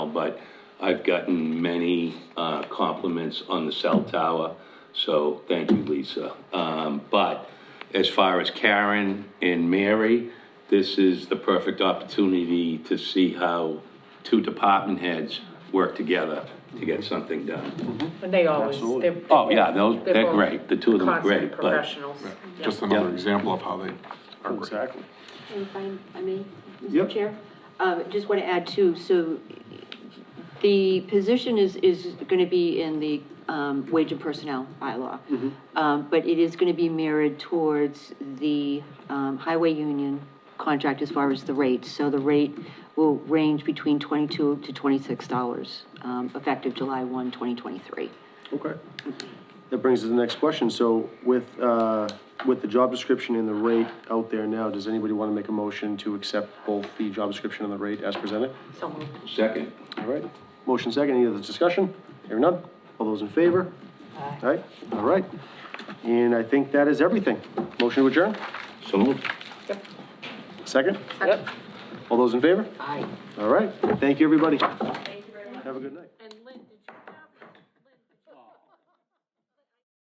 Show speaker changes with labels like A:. A: but I've gotten many uh, compliments on the cell tower, so thank you, Lisa. Um, But as far as Karen and Mary, this is the perfect opportunity to see how two department heads work together to get something done.
B: And they always,
C: Absolutely.
B: they're.
A: Oh, yeah, those-
B: they're
A: they're
B: both
A: great. The two of them are
B: consummate
A: great, but-
B: Professionals. Yeah.
D: Just another
A: Yeah.
D: example of how they are great.
C: Exactly.
E: If I- I may,
C: Yep.
E: Mr. Chair? Uh, Just want to add too, so the position is, is going to be in the um, wage and personnel bylaw. Um, But it is going to be mirrored towards the um, highway union contract as far as the rate. So the rate will range between 22 to $26, um, effective July 1, 2023.
C: Okay. That brings us to the next question. So with, uh, with the job description and the rate out there now, does anybody want to make a motion to accept both the job description and the rate as presented?
B: So moved.
A: Second,
C: All right. Motion second, any other discussion? Hearing none. All those in favor? Aye. All right, all right. And I think that is everything. Motion to adjourn?
A: so moved.
C: Second?
B: Yep.
C: All those in favor?
B: Aye.
C: All right. Thank you, everybody. Thank you very much. Have a good night.
F: And